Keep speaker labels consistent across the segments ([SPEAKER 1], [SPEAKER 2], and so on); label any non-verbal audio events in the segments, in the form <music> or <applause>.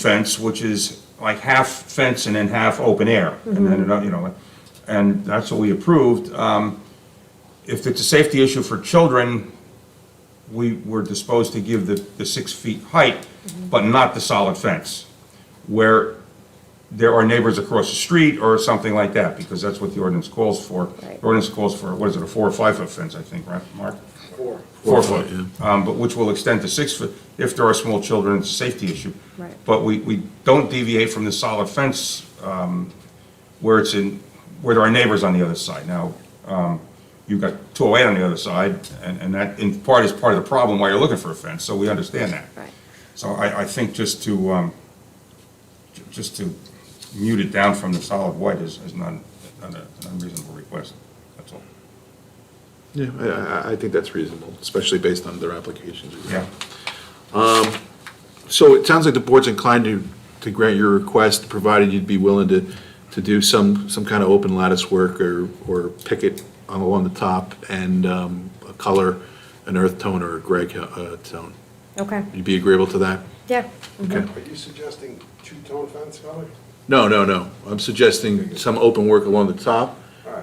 [SPEAKER 1] fence, which is like half fence and then half open air, and then, another, you know, and that's what we approved. Um, If it's a safety issue for children, we were disposed to give the, the six feet height, but not the solid fence, where there are neighbors across the street or something like that, because that's what the ordinance calls for.
[SPEAKER 2] Right.
[SPEAKER 1] The Ordinance calls for, what is it, a four or five foot fence, I think, right, Mark?
[SPEAKER 3] Four.
[SPEAKER 1] Four foot, um, but which will extend to six foot if there are small children, it's a safety issue.
[SPEAKER 2] Right.
[SPEAKER 1] But we, we don't deviate from the solid fence, um, where it's in, where there are neighbors on the other side. Now, um, you've got two oh eight on the other side, and, and that in part is part of the problem why you're looking for a fence, so we understand that.
[SPEAKER 2] Right.
[SPEAKER 1] So I, I think just to, um, ju- just to mute it down from the solid white is, is not, not a- an unreasonable request, that's all.
[SPEAKER 4] Yeah, I, I, I think that's reasonable, especially based on their applications.
[SPEAKER 1] Yeah,
[SPEAKER 4] So it sounds like the board's inclined to, to grant your request, provided you'd be willing to, to do some, some kind of open lattice work or, or picket on- along the top and, um, a color, an earth tone or a gray, co- uh, tone.
[SPEAKER 2] Okay,
[SPEAKER 4] You'd be agreeable to that?
[SPEAKER 2] yeah,
[SPEAKER 4] Okay.
[SPEAKER 3] Are you suggesting two-tone fence color?
[SPEAKER 4] No, no, no. I'm suggesting some open work along the top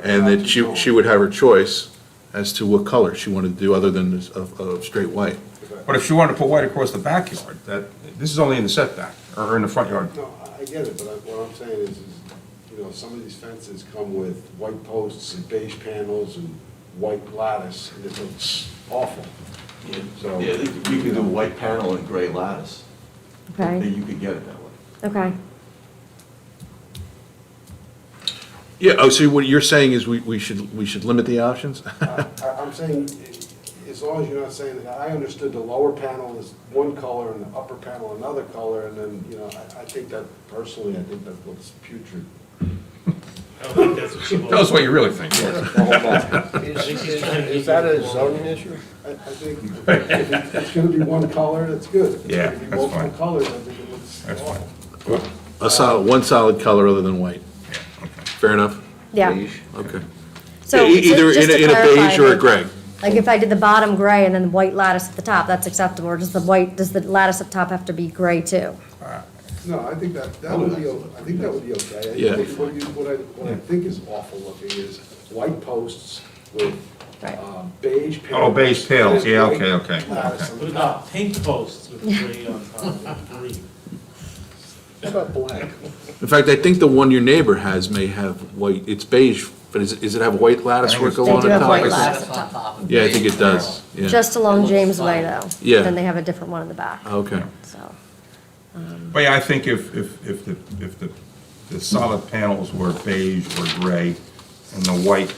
[SPEAKER 4] and that she, she would have her choice as to what color she wanted to do other than this, of, of straight white.
[SPEAKER 1] but if she wanted to put white across the backyard, that, this is only in the setback, or in the front yard.
[SPEAKER 3] No, I- I get it, but I- what I'm saying is, is, you know, some of these fences come with white posts and beige panels and white lattice, and it looks awful.
[SPEAKER 5] Yeah,
[SPEAKER 3] So-
[SPEAKER 5] yeah, you could- you could do white panel and gray lattice.
[SPEAKER 2] okay,
[SPEAKER 5] Then you could get it that way.
[SPEAKER 4] E-
[SPEAKER 2] okay.
[SPEAKER 4] Yeah, oh, so what you're saying is we, we should, we should limit the options? <laughs>
[SPEAKER 3] I- I- I'm saying, i- as long as you're not saying, that I understood the lower panel is one color and the upper panel another color, and then, you know, I I think that personally, I think that looks putrid.
[SPEAKER 6] I don't think that's what she
[SPEAKER 1] Tell us
[SPEAKER 6] wants.
[SPEAKER 1] what you really think.
[SPEAKER 7] Is that a zoning issue?
[SPEAKER 3] I, I think if it's gonna be one color, that's good. If it's
[SPEAKER 1] Yeah,
[SPEAKER 3] gonna be
[SPEAKER 1] that's fine.
[SPEAKER 3] Multiple colors, I think it looks
[SPEAKER 1] That's fine.
[SPEAKER 3] awful.
[SPEAKER 4] A solid, one solid color other than white. Fair enough?
[SPEAKER 2] Yeah,
[SPEAKER 4] Okay.
[SPEAKER 2] so.
[SPEAKER 4] E-
[SPEAKER 2] ju-
[SPEAKER 4] Either
[SPEAKER 2] just
[SPEAKER 4] in a,
[SPEAKER 2] to
[SPEAKER 4] in a
[SPEAKER 2] clarify,
[SPEAKER 4] beige or a
[SPEAKER 2] like-
[SPEAKER 4] gray.
[SPEAKER 2] Like if I did the bottom gray and then the white lattice at the top, that's acceptable, or does the white, does the lattice up top have to be gray too?
[SPEAKER 3] No, I think that,
[SPEAKER 7] Oh,
[SPEAKER 3] that would be, o- I think that would be okay. I
[SPEAKER 4] Yeah.
[SPEAKER 3] think What you, what I, what I think is awful looking is white posts with
[SPEAKER 2] Right.
[SPEAKER 3] um, beige panels.
[SPEAKER 1] Oh, beige tails, yeah, okay, okay,
[SPEAKER 3] Lattice
[SPEAKER 6] What
[SPEAKER 3] on top.
[SPEAKER 6] about pink posts with gray on top and green?
[SPEAKER 3] What about black?
[SPEAKER 4] In fact, I think the one your neighbor has may have white, it's beige, but is, it- is it have white lattice work
[SPEAKER 1] They
[SPEAKER 2] They
[SPEAKER 4] along
[SPEAKER 2] do
[SPEAKER 4] the
[SPEAKER 2] have
[SPEAKER 4] top?
[SPEAKER 2] white
[SPEAKER 4] Is it-
[SPEAKER 2] lattice up top,
[SPEAKER 4] Yeah, I think it does, yeah.
[SPEAKER 2] just along James Way though.
[SPEAKER 4] Yeah. Oh.
[SPEAKER 2] Then they have a different one in the back,
[SPEAKER 4] Okay.
[SPEAKER 2] so,
[SPEAKER 1] But yeah, I think if, if, if the, if the, the solid panels were beige or gray, and the white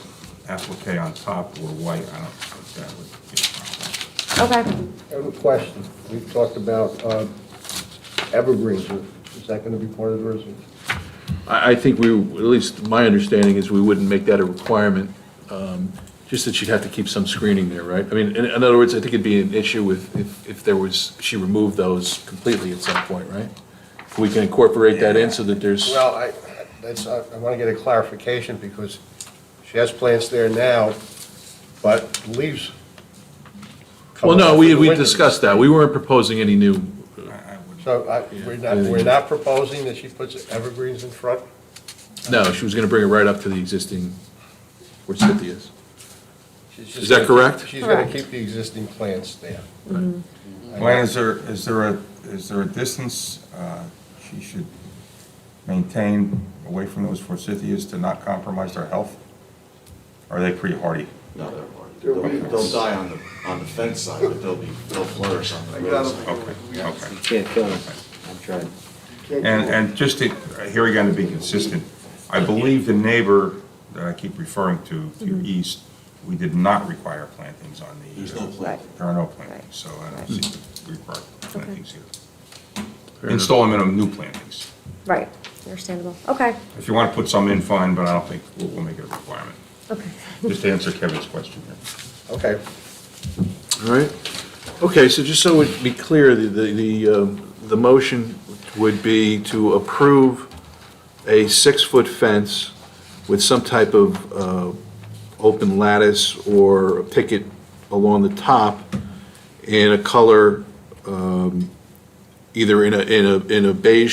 [SPEAKER 1] applique on top were white, I don't think that would be a problem.
[SPEAKER 2] okay.
[SPEAKER 7] I have a question. We've talked about uh, evergreens. Is that going to be part of the resolution?
[SPEAKER 4] I, I think we, at least my understanding is we wouldn't make that a requirement, um, just that she'd have to keep some screening there, right? I mean, in, in other words, I think it'd be an issue with, if, if there was, she removed those completely at some point, right? We can incorporate that in so that there's,
[SPEAKER 7] Well, I, that's, I want to get a clarification because she has plants there now, but leaves. come
[SPEAKER 4] well,
[SPEAKER 7] off
[SPEAKER 4] no,
[SPEAKER 7] in
[SPEAKER 4] we,
[SPEAKER 7] the
[SPEAKER 4] we
[SPEAKER 7] winter.
[SPEAKER 4] discussed that. We weren't proposing any new,
[SPEAKER 1] I, I would,
[SPEAKER 7] So I, we're not, we're not proposing that she puts evergreens in front?
[SPEAKER 4] no, she was gonna bring it right up to the existing, where Cynthia is.
[SPEAKER 7] She's just
[SPEAKER 4] Is that
[SPEAKER 7] gonna-
[SPEAKER 4] correct?
[SPEAKER 7] She's going
[SPEAKER 2] Correct.
[SPEAKER 7] to keep the existing plants there.
[SPEAKER 1] Glenn, is there, is there a, is there a distance, uh, she should maintain away from those forsythias to not compromise their health? Are they pretty hardy?
[SPEAKER 5] No, they're hard.
[SPEAKER 3] They're
[SPEAKER 5] They'll,
[SPEAKER 3] weeds.
[SPEAKER 5] they'll die on the, on the fence side, but they'll be, they'll flourish on the road side.
[SPEAKER 1] Okay, okay.
[SPEAKER 8] Can't kill him. I'm trying.
[SPEAKER 3] Can't
[SPEAKER 1] And,
[SPEAKER 3] do it.
[SPEAKER 1] and just to, here again, to be consistent, I believe the neighbor that I keep referring to, to your east, we did not require plantings on the. uh,
[SPEAKER 5] There's no
[SPEAKER 2] Right.
[SPEAKER 5] plant.
[SPEAKER 1] There are no
[SPEAKER 2] Right.
[SPEAKER 1] plantings, so I don't see we require plantings here.
[SPEAKER 4] Fair enough.
[SPEAKER 1] Install minimum new plantings.
[SPEAKER 2] Right, understandable, okay,
[SPEAKER 1] If you want to put some in, fine, but I don't think we'll, we'll make it a requirement.
[SPEAKER 2] okay.
[SPEAKER 1] Just to answer Kevin's question here.
[SPEAKER 7] Okay.
[SPEAKER 4] All right. Okay, so just so it be clear, the, the, the, um, the motion would be to approve a six-foot fence with some type of uh, open lattice or a picket along the top in a color, um, either in a, in a, in a beige